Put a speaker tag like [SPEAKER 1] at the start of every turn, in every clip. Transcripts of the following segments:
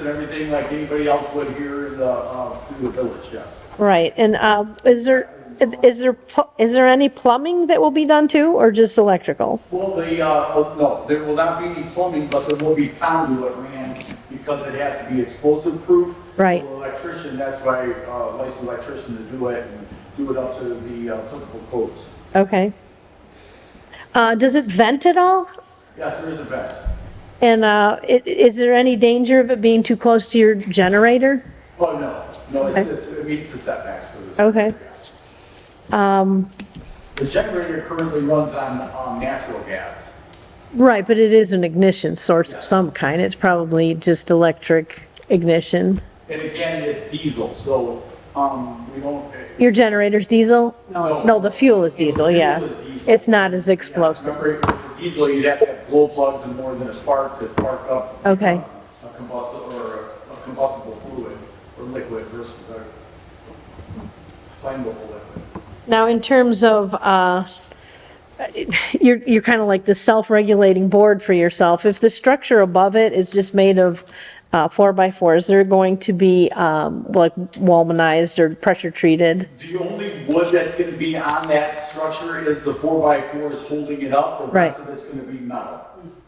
[SPEAKER 1] and everything like anybody else would here in the, uh, through the village, yes.
[SPEAKER 2] Right, and um, is there, is there, pl- is there any plumbing that will be done too, or just electrical?
[SPEAKER 1] Well, the, uh, oh, no, there will not be any plumbing, but there will be conduit ran because it has to be explosive proof.
[SPEAKER 2] Right.
[SPEAKER 1] So Electrician, that's why, uh, licensed electrician to do it and do it up to the uh, applicable codes.
[SPEAKER 2] Okay. Uh, Does it vent at all?
[SPEAKER 1] Yes, there is a vent.
[SPEAKER 2] And uh, i- is there any danger of it being too close to your generator?
[SPEAKER 1] Oh, no, no, it's,
[SPEAKER 2] Okay.
[SPEAKER 1] it's, it meets the setbacks for the.
[SPEAKER 2] Okay. Um,
[SPEAKER 1] The generator currently runs on, um, natural gas.
[SPEAKER 2] Right, but it is an ignition source of some kind. It's probably just electric ignition.
[SPEAKER 1] And again, it's diesel, so, um, we don't.
[SPEAKER 2] Your generator's diesel?
[SPEAKER 1] No.
[SPEAKER 2] No, the fuel is diesel,
[SPEAKER 1] The fuel
[SPEAKER 2] yeah.
[SPEAKER 1] is diesel.
[SPEAKER 2] It's not as explosive.
[SPEAKER 1] Remember, usually you'd have to have glow plugs and more than a spark to spark up.
[SPEAKER 2] Okay.
[SPEAKER 1] uh, A combustible, or a- a combustible fluid or liquid versus a flammable liquid.
[SPEAKER 2] Now, in terms of, uh, you're, you're kind of like the self-regulating board for yourself. If the structure above it is just made of uh, four by fours, they're going to be um, like walmanized or pressure treated?
[SPEAKER 1] The only wood that's gonna be on that structure is the four by fours holding it up. The rest
[SPEAKER 2] Right.
[SPEAKER 1] of it's gonna be metal,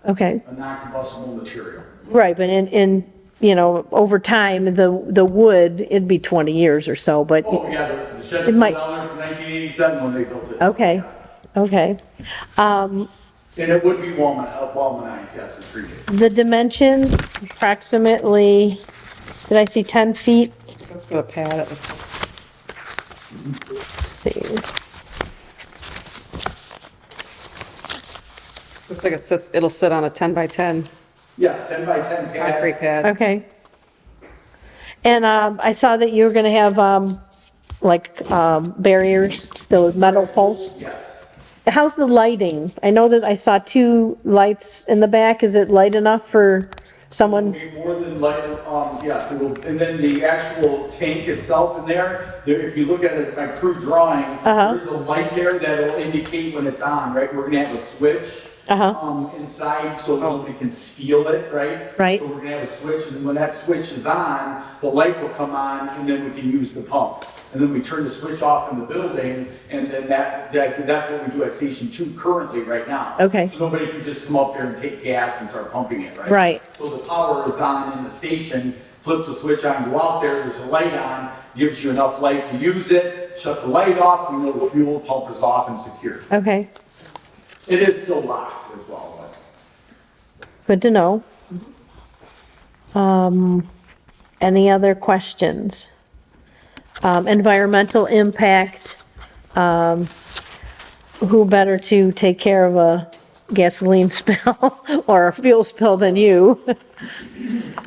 [SPEAKER 2] Okay,
[SPEAKER 1] a non-combustible material.
[SPEAKER 2] right, but in, in, you know, over time, the, the wood, it'd be 20 years or so, but,
[SPEAKER 1] Oh, yeah, the- the shed's
[SPEAKER 2] It
[SPEAKER 1] been
[SPEAKER 2] might-
[SPEAKER 1] down there from nineteen eighty-seven when they built it.
[SPEAKER 2] okay, okay. Um,
[SPEAKER 1] And it would be walman, uh, walmanized, yes, it's treated.
[SPEAKER 2] The dimensions approximately, did I see 10 feet?
[SPEAKER 3] Let's go to pad it.
[SPEAKER 2] See,
[SPEAKER 3] Looks like it sits, it'll sit on a 10 by 10
[SPEAKER 1] Yes, ten by ten pad.
[SPEAKER 3] concrete pad.
[SPEAKER 2] Okay. And um, I saw that you were going to have, um, like, um, barriers, those metal poles.
[SPEAKER 1] Yes.
[SPEAKER 2] How's the lighting? I know that I saw two lights in the back. Is it light enough for someone?
[SPEAKER 1] Be more than like, um, yes, it will, and then the actual tank itself in there, there, if you look at it, my crew drawing,
[SPEAKER 2] Uh-huh.
[SPEAKER 1] there's a light there that'll indicate when it's on, right? We're gonna have a switch.
[SPEAKER 2] Uh-huh.
[SPEAKER 1] Um, inside, so nobody can steal it, right?
[SPEAKER 2] Right.
[SPEAKER 1] So we're gonna have a switch, and when that switch is on, the light will come on, and then we can use the pump. And then we turn the switch off in the building, and then that, that's, that's what we do at station two currently, right now.
[SPEAKER 2] Okay.
[SPEAKER 1] So nobody can just come up there and take gas and start pumping it, right?
[SPEAKER 2] Right.
[SPEAKER 1] So the power is on in the station, flip the switch on, go out there, there's a light on, gives you enough light to use it, shut the light off, we know the fuel pump is off and secure.
[SPEAKER 2] Okay,
[SPEAKER 1] It is still locked as well, but.
[SPEAKER 2] good to know. Um, Any other questions? Um, Environmental impact, um, who better to take care of a gasoline spill or a fuel spill than you?
[SPEAKER 1] The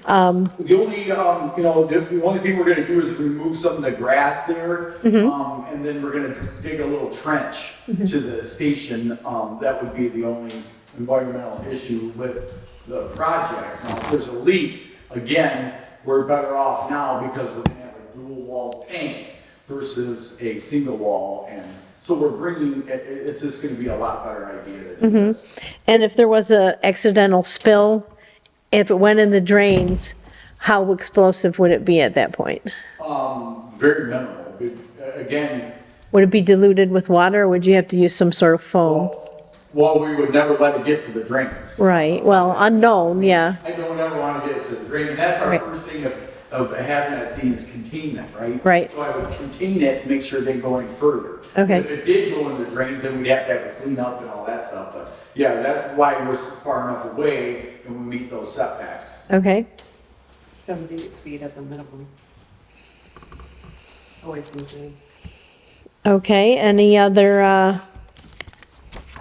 [SPEAKER 1] only, um, you know, the, the only thing we're gonna do is remove some of the grass there. Um, and then we're gonna dig a little trench to the station. Um, that would be the only environmental issue with the project. Now, if there's a leak, again, we're better off now because we're gonna have a dual wall tank versus a single wall. And so we're bringing, it, it- it's just gonna be a lot better idea than this.
[SPEAKER 2] And if there was a accidental spill, if it went in the drains, how explosive would it be at that point?
[SPEAKER 1] Um, very minimal. But, uh, Again,
[SPEAKER 2] Would it be diluted with water, or would you have to use some sort of foam?
[SPEAKER 1] Well, we would never let it get to the drains.
[SPEAKER 2] Right, well, unknown, yeah,
[SPEAKER 1] I don't ever want to get it to the drain, and that's our
[SPEAKER 2] Right.
[SPEAKER 1] first thing of, of a hazmat scene is containment, right?
[SPEAKER 2] Right.
[SPEAKER 1] So I would contain it, make sure it didn't go any further.
[SPEAKER 2] Okay.
[SPEAKER 1] If it did go into the drains, then we'd have to have it cleaned up and all that stuff, but, yeah, that's why we're so far enough away and we meet those setbacks.
[SPEAKER 2] okay.
[SPEAKER 3] 70 feet at the minimum. Away from the things.
[SPEAKER 2] Okay, any other uh,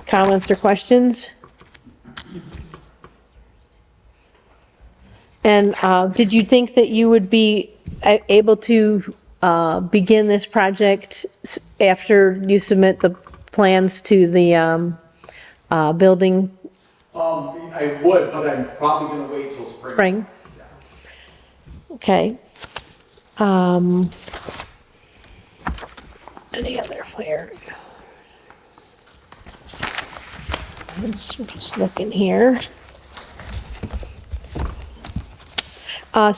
[SPEAKER 2] comments or questions? And uh, did you think that you would be a- able to uh, begin this project s- after you submit the plans to the um, uh, building
[SPEAKER 1] Um, I would, but I'm probably gonna wait till spring.
[SPEAKER 2] spring? Okay. Um, Any other where? I'm just looking here. Uh,